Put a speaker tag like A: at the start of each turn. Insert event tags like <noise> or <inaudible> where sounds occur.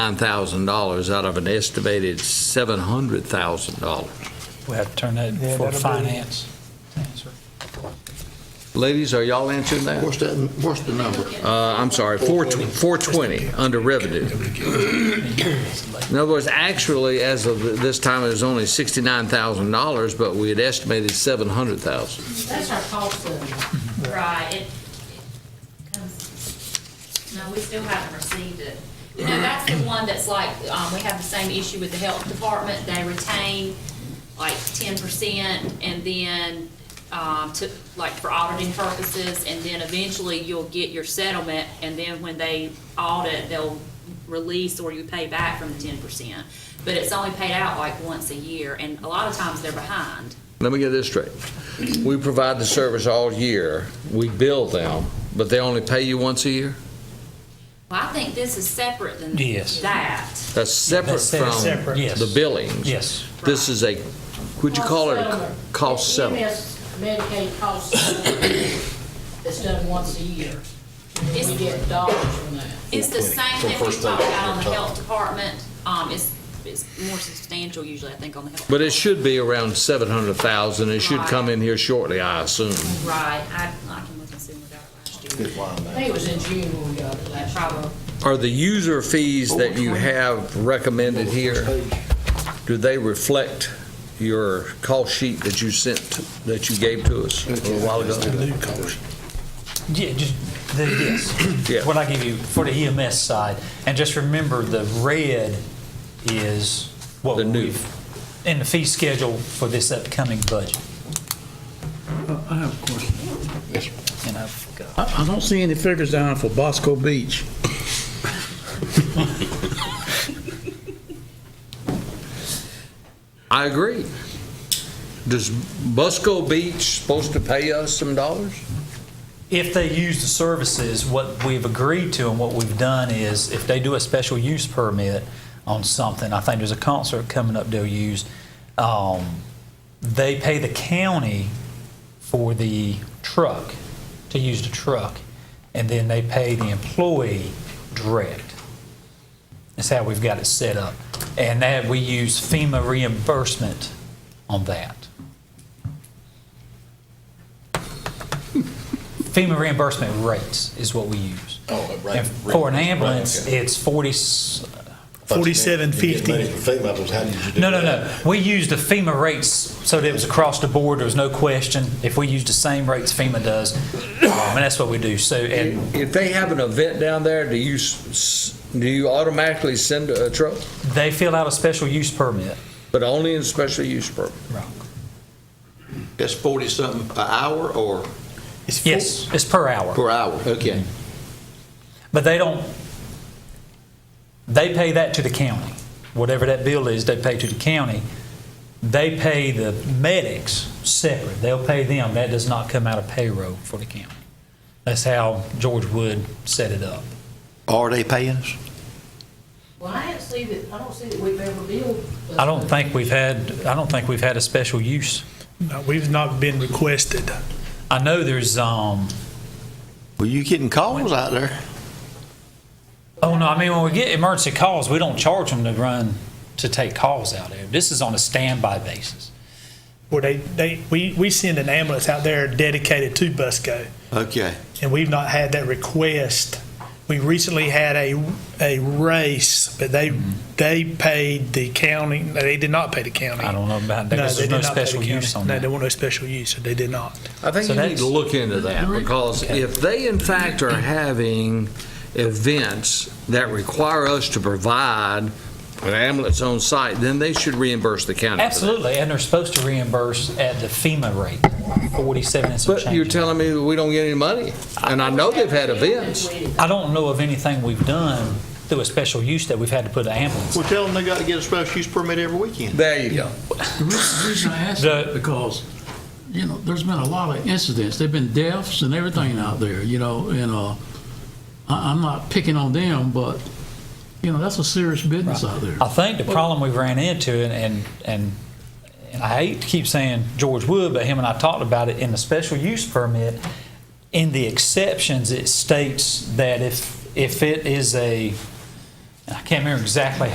A: $9,000 out of an estimated $700,000.
B: We have to turn that
C: Yeah,
B: for
C: that'll be-
B: finance. Answer.
A: Ladies, are y'all answering that?
D: What's that, what's the number?
A: Uh, I'm sorry, 420 420 under revenue. In other words, actually, as of this time, it was only $69,000, but we had estimated 700,000.
E: That's our cost of, right, it, it comes, no, we still haven't received it. You know, that's the one that's like, um, we have the same issue with the health department, they retain like ten percent, and then, um, to, like, for auditing purposes, and then eventually you'll get your settlement, and then when they audit, they'll release or you pay back from the ten percent. But it's only paid out like once a year, and a lot of times they're behind.
A: Let me get this straight. We provide the service all year, we bill them, but they only pay you once a year?
E: Well, I think this is separate than
B: Yes.
E: that.
A: That's separate
B: That's
A: from
B: separate. Yes.
A: the billings?
B: Yes.
A: This is a, would you call it a c- cost settlement?
F: MS E Medicaid cost settlement that's done once a year. And then We get dollars from that.
E: It's the same thing we talked about on the health department. Um, it's, it's more substantial usually, I think, on the health.
A: But it should be around 700,000, it should come in here shortly, I assume.
E: Right, I, I can look and see when we got it last year.
F: I think it was in June when we got it last year.
E: Probably,
A: Are the user fees that you have recommended here, do they reflect your call sheet that you sent, that you gave to us a little while ago?
B: Yeah, just, the, yes.
A: Yeah.
B: What I give you for the EMS side, and just remember, the red is what
A: The new.
B: we've, in the fee schedule for this upcoming budget,
G: I have a question.
B: and I forgot.
G: I, I don't see any figures down for Bosco Beach.
A: I agree. Does Busco Beach supposed to pay us some dollars?
B: If they use the services, what we've agreed to and what we've done is if they do a special use permit on something, I think there's a concert coming up they'll use, um, they pay the county for the truck, to use the truck, and then they pay the employee direct. That's how we've got it set up. And that, we use FEMA reimbursement on that. <laughs> FEMA reimbursement rates is what we use.
H: Oh, right.
B: And for an
H: Right,
B: ambulance,
H: okay.
B: it's 40,
H: Forty-seven fifty. how did you do
B: no, no,
H: that?
B: no. We used the FEMA rates, so that it was across the board, there was no question. If we used the same rates FEMA does, <coughs> um, and that's what we do. So, and
A: If they have an event down there, do you, s- s- do you automatically send a truck?
B: they fill out a special use permit.
A: But only in special use permit?
D: That's forty-something an hour or
B: Yes, it's per hour.
D: per hour? Okay.
B: But they don't, they pay that to the county. Whatever that bill is, they pay to the county. They pay the medics separate. They'll pay them. That does not come out of payroll for the county. That's how George Wood set it up.
D: Are they paying us?
F: Well, I didn't see that, I don't see that we've ever billed.
B: I don't think we've had, I don't think we've had a special use.
C: No, Uh, We've not been requested.
B: I know there's, um,
D: Well, you getting calls out there?
B: oh no, I mean, when we get emergency calls, we don't charge them to run, to take calls out there. This is on a standby basis.
C: Where they, they, we, we send an ambulance out there dedicated to Busco,
D: Okay.
C: and we've not had that request. We recently had a, a race, but they, they paid the county, no, they did not pay the county.
B: Mm-hmm. I don't know about that,
C: No,
B: 'cause
C: they
B: there's no
C: did not pay the
B: special
C: county.
B: use on
C: No,
B: that.
C: there was no special use, so they did not.
A: I think
B: So
A: you need
B: that's-
A: to look into that, because if they in fact are having events that require us to provide an ambulance on site, then they should reimburse the county. for that.
B: Absolutely, and they're supposed to reimburse at the FEMA rate, forty-seven and some
A: But you're
B: change.
A: telling me that we don't get any money, and I know they've had events.
B: I don't know of anything we've done through a special use that we've had to put an ambulance.
D: Well, tell them they gotta get a special use permit every weekend.
A: There you go.
G: The reason reason I ask
B: The-
G: that, because, you know, there's been a lot of incidents, there've been deaths and everything out there, you know, and, uh, I, I'm not picking on them, but, you know, that's a serious business out there.
B: I think the problem we've ran into, and, and, and, and I hate to keep saying George Wood, but him and I talked about it in the special use permit. In the exceptions, it states that if, if it is a, I can't remember exactly